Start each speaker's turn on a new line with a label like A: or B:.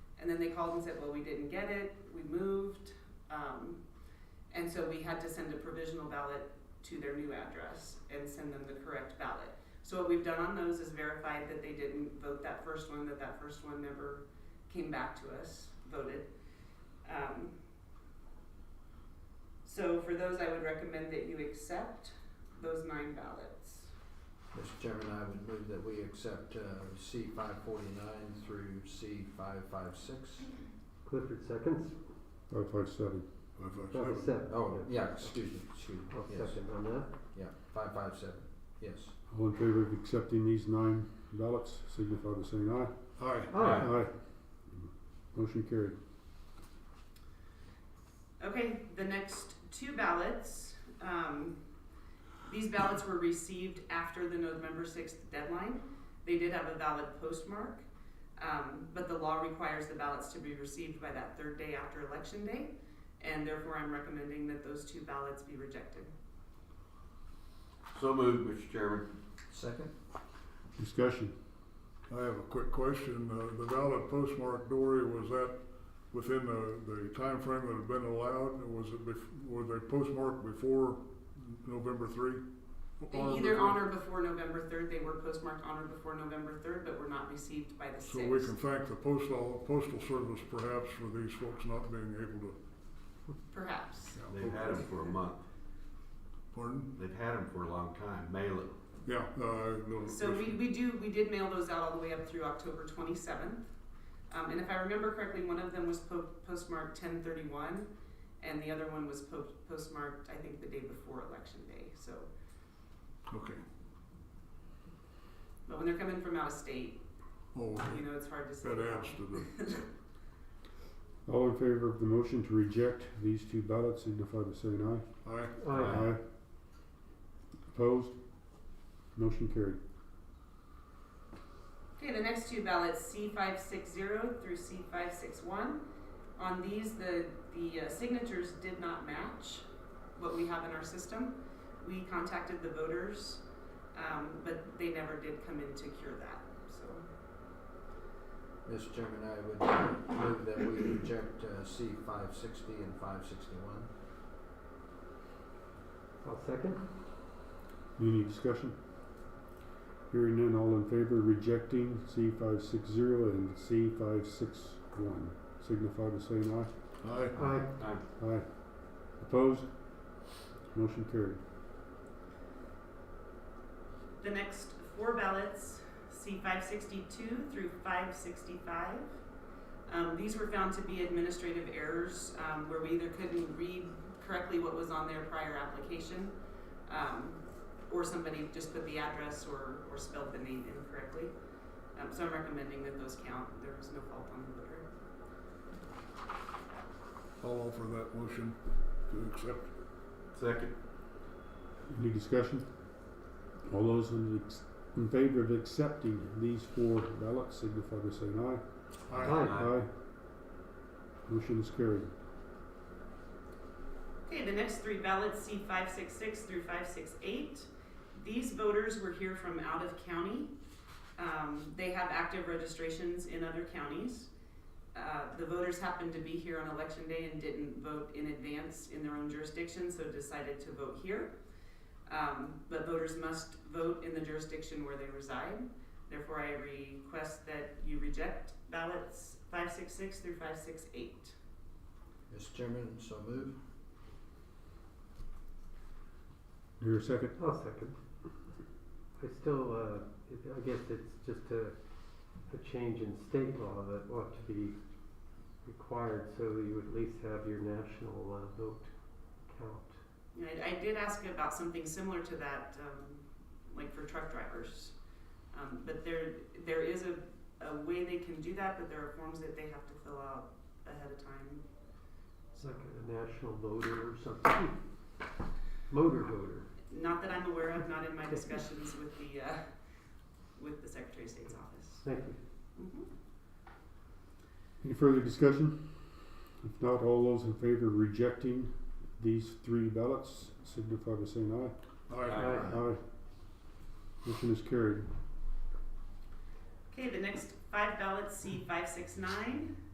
A: And then they called and said, well, we didn't get it, we moved. Um, and so we had to send a provisional ballot to their new address and send them the correct ballot. So what we've done on those is verified that they didn't vote that first one, that that first one never came back to us, voted. Um, so for those, I would recommend that you accept those nine ballots.
B: Mr. Chairman, I would move that we accept, uh, C five forty-nine through C five five six.
C: Clifford seconds,
D: Five five seven.
C: Five seven.
B: Oh, yeah, excuse me, excuse me,
C: I'll
B: yes,
C: second on that.
B: yeah, five five seven, yes.
D: All in favour of accepting these nine ballots, signify by saying aye.
E: Aye.
C: Aye.
D: Aye. Motion carried.
A: Okay, the next two ballots, um, these ballots were received after the November sixth deadline. They did have a valid postmark, um, but the law requires the ballots to be received by that third day after election day. And therefore, I'm recommending that those two ballots be rejected.
E: So moved, Mr. Chairman.
B: Second?
D: Discussion.
F: I have a quick question. Uh, The valid postmark Dory, was that within the, the timeframe that had been allowed? Was it, bef- were they postmarked before November three?
A: They
F: Or
A: either
F: before-
A: on or before November third, they were postmarked on or before November third, but were not received by the
F: So we
A: sixth.
F: can thank the postal, postal service perhaps for these folks not being able to.
A: Perhaps.
E: They've had them for a month.
F: Pardon?
E: They've had them for a long time. Mail it.
F: Yeah, uh, no.
A: So we, we do, we did mail those out all the way up through October twenty-seventh. Um, and if I remember correctly, one of them was po- postmarked ten thirty-one, and the other one was po- postmarked, I think, the day before election day, so.
F: Okay.
A: But when they're coming from out of state,
F: Oh,
A: you know, it's hard to say.
F: that adds to
D: All in favour of the motion to reject these two ballots, signify by saying aye.
F: the, I,
C: Aye.
E: Aye.
D: Opposed? Motion carried.
A: Okay, the next two ballots, C five six zero through C five six one. On these, the, the uh, signatures did not match what we have in our system. We contacted the voters, um, but they never did come in to cure that, so.
B: Mr. Chairman, I would move that we reject, uh, C five sixty and five sixty-one.
C: I'll second.
D: Any discussion? Hearing none, all in favour of rejecting C five six zero and C five six one, signify by saying aye.
F: I,
C: Aye.
E: Aye.
D: Aye. Opposed? Motion carried.
A: The next four ballots, C five sixty-two through five sixty-five. Um, these were found to be administrative errors, um, where we either couldn't read correctly what was on their prior application, um, or somebody just put the address or, or spelled the name incorrectly. Um, so I'm recommending that those count, there was no fault on the voter.
F: I'll offer that motion to accept.
E: Second.
D: Any discussion? All those in, ex- in favor of accepting these four ballots signify by saying aye.
C: Aye.
D: Motion is carried.
A: Okay, the next three ballots, C five six six through five six eight. These voters were here from out of county. Um, they have active registrations in other counties. Uh, the voters happened to be here on election day and didn't vote in advance in their own jurisdiction, so decided to vote here. Um, but voters must vote in the jurisdiction where they reside. Therefore, I request that you reject ballots five six six through five six eight.
B: Mr. Chairman, so move.
D: Your second.
C: I'll second. I still, uh, it- I guess it's just a, a change in state law that ought to be required so that you at least have your national, uh, vote count.
A: Yeah, I, I did ask about something similar to that, um, like for truck drivers. Um, but there, there is a, a way they can do that, but there are forms that they have to fill out ahead of time.
C: It's like a national voter or something. Motor voter.
A: Not that I'm aware of, not in my discussions with the, uh, with the Secretary of State's office.
C: Thank you.
A: Mhm.
D: Any further discussion? If not, all those in favor of rejecting these three ballots signify by saying
F: I,
C: Aye.
D: aye. Aye. Motion is carried.
A: Okay, the next five ballots, C five six nine